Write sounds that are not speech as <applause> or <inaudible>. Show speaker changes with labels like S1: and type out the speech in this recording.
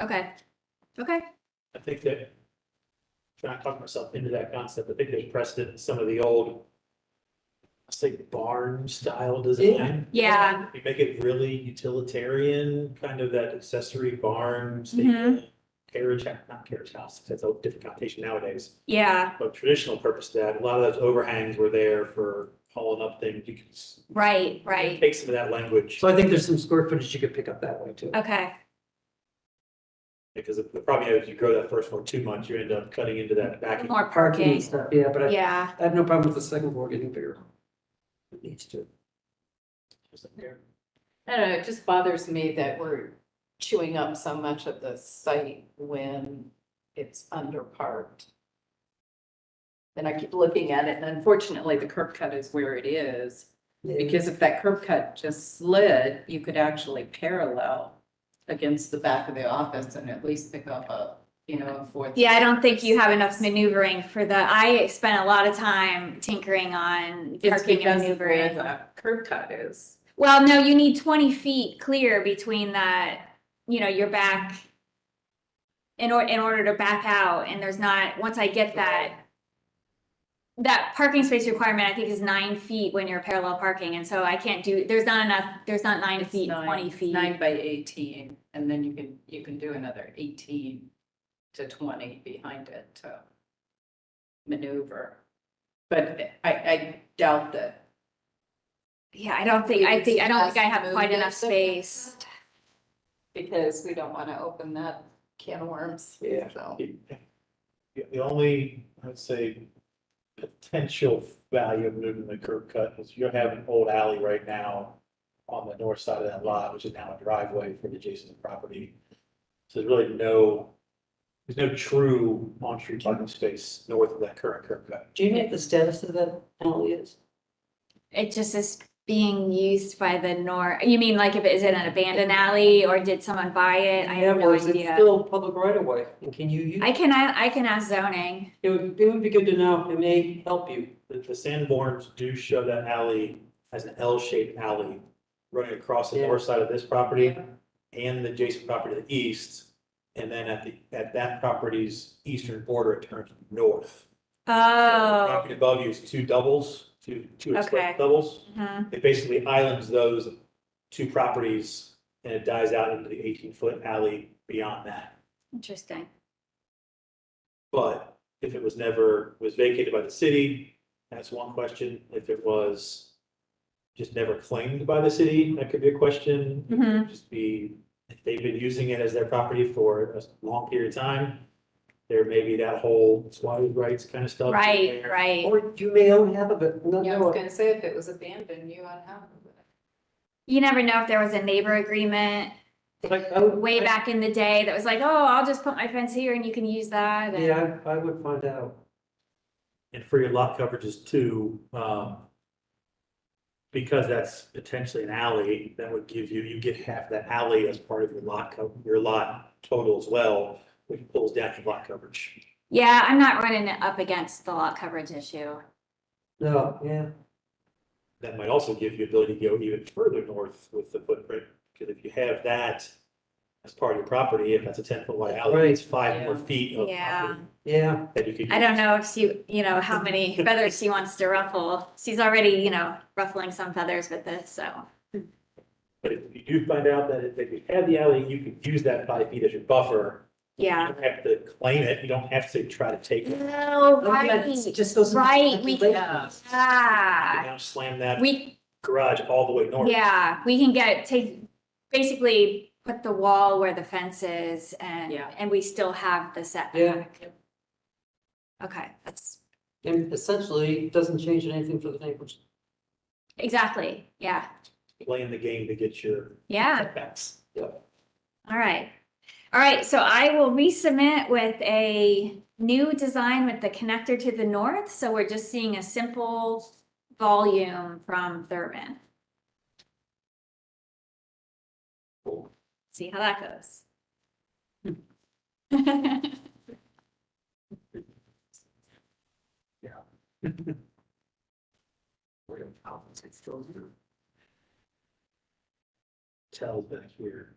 S1: Okay, okay,
S2: I think that, trying to talk myself into that concept, I think there's precedent in some of the old, I say barn style design.
S1: yeah,
S2: You make it really utilitarian, kind of that accessory barn,
S1: Mhm.
S2: stable carriage, ha- not carriage house, that's a different connotation nowadays.
S1: yeah,
S2: But traditional purpose to that, a lot of those overhangs were there for hauling up things. You can s-
S1: right, right,
S2: Take some of that language,
S3: So I think there's some square footage you could pick up that way too.
S1: okay,
S2: because the the problem is if you grow that first one too much, you end up cutting into that back. end.
S1: more
S3: Parking and
S1: parking,
S3: stuff, yeah, but I,
S1: yeah,
S3: I have no problem with the second floor getting bigger. It needs to.
S4: I don't know, it just bothers me that we're chewing up so much of the site when it's underparked. And I keep looking at it, and unfortunately, the curb cut is where it is, because if that curb cut just slid, you could actually parallel against the back of the office and at least pick up a, you know, a fourth.
S1: yeah, I don't think you have enough maneuvering for the, I spent a lot of time tinkering on
S4: It's
S1: parking and
S4: because of where
S1: maneuvering.
S4: the curb cut is.
S1: Well, no, you need twenty feet clear between that, you know, your back. In or, in order to back out, and there's not, once I get that. That parking space requirement, I think, is nine feet when you're parallel parking, and so I can't do, there's not enough, there's not nine
S4: It's
S1: feet,
S4: nine-
S1: twenty
S4: it's
S1: feet.
S4: Nine by eighteen, and then you can, you can do another eighteen to twenty behind it to maneuver. But I, I doubt that.
S1: Yeah, I don't think,
S4: You
S1: I
S4: would
S1: think, I don't think I
S4: suggest
S1: have quite
S4: moving
S1: enough
S4: it different?
S1: space.
S4: Because we don't wanna open that can of worms.
S2: Yeah.
S4: So,
S2: The the only, I'd say, potential value of moving the curb cut is you have an old alley right now on the north side of that lot, which is now a driveway for the adjacent property. So there's really no, there's no true on-street parking space north of that current curb cut.
S3: Do you know what the status of that alley is?
S1: It just is being used by the nor, you mean like if it is in an abandoned alley or did someone buy it? I
S3: Yeah,
S1: have
S3: well,
S1: no
S3: is it
S1: idea.
S3: Still public right of way, and can you use,
S1: I can, I I can ask zoning.
S3: it would, it would be good to know, it may help you.
S2: The, the Sanborns do show that alley as an L-shaped alley running across the
S3: Yeah.
S2: north side of this property and the adjacent property to the east. And then at the, at that property's eastern border, it turns north. So the
S1: Oh,
S2: Property above you is two doubles, two, two
S1: Okay.
S2: express doubles.
S1: mhm.
S2: It basically islands those two properties and it dies out into the eighteen foot alley beyond that.
S1: interesting.
S2: But if it was never, was vacated by the city, that's one question. If it was just never claimed by the city, that could be a question.
S3: Mm-hmm.
S2: It could
S1: Mhm.
S2: Just be, if they've been using it as their property for a long period of time, there may be that whole squatter's rights kind of stuff. in
S1: Right,
S2: there.
S1: right.
S3: Or you may own half of it, not
S4: yeah, I
S3: know
S4: was
S3: it.
S4: gonna say, if it was abandoned, you on half of it.
S1: You never know if there was a neighbor agreement
S3: But I- I would-
S1: way
S3: I-
S1: back in the day that was like, oh, I'll just put my fence here and you can use that. and-
S3: Yeah, I I would find out.
S2: and for your lot coverages too, um. Because that's potentially an alley, that would give you, you get half that alley as part of your lot co- your lot total as well, which pulls down your lot coverage.
S1: Yeah, I'm not running it up against the lot coverage issue.
S3: No, yeah,
S2: That might also give you ability to go even further north with the footprint, because if you have that. As part of your property, if that's a ten foot wide alley, it's five more feet of
S1: Yeah.
S2: property
S3: yeah,
S2: that you could.
S1: I
S2: use.
S1: don't know if she, you know, how
S3: <laughs>
S1: many feathers she wants to ruffle. She's already, you know, ruffling some feathers with this, so.
S2: But if you do find out that if you had the alley, you could use that five feet as your buffer.
S1: Yeah.
S2: You don't have to claim it, you don't have to try to take it.
S1: No,
S3: Oh, yeah, it's
S1: right.
S3: just those.
S1: Right, we can-
S3: Yeah.
S2: can
S1: Ah,
S2: now slam that
S1: we,
S2: garage all the way north.
S1: yeah, we can get, take, basically put the wall where the fence is and,
S4: Yeah.
S1: and we still have the setback. Okay, that's,
S3: And essentially, it doesn't change anything for the neighbors.
S1: exactly, yeah,
S2: Playing the game to get your
S1: yeah.
S2: setbacks.
S1: All right. All right, so I will resubmit with a new design with the connector to the north. So we're just seeing a simple volume from Thurman. See how that goes. <laughs>
S2: Tell back here.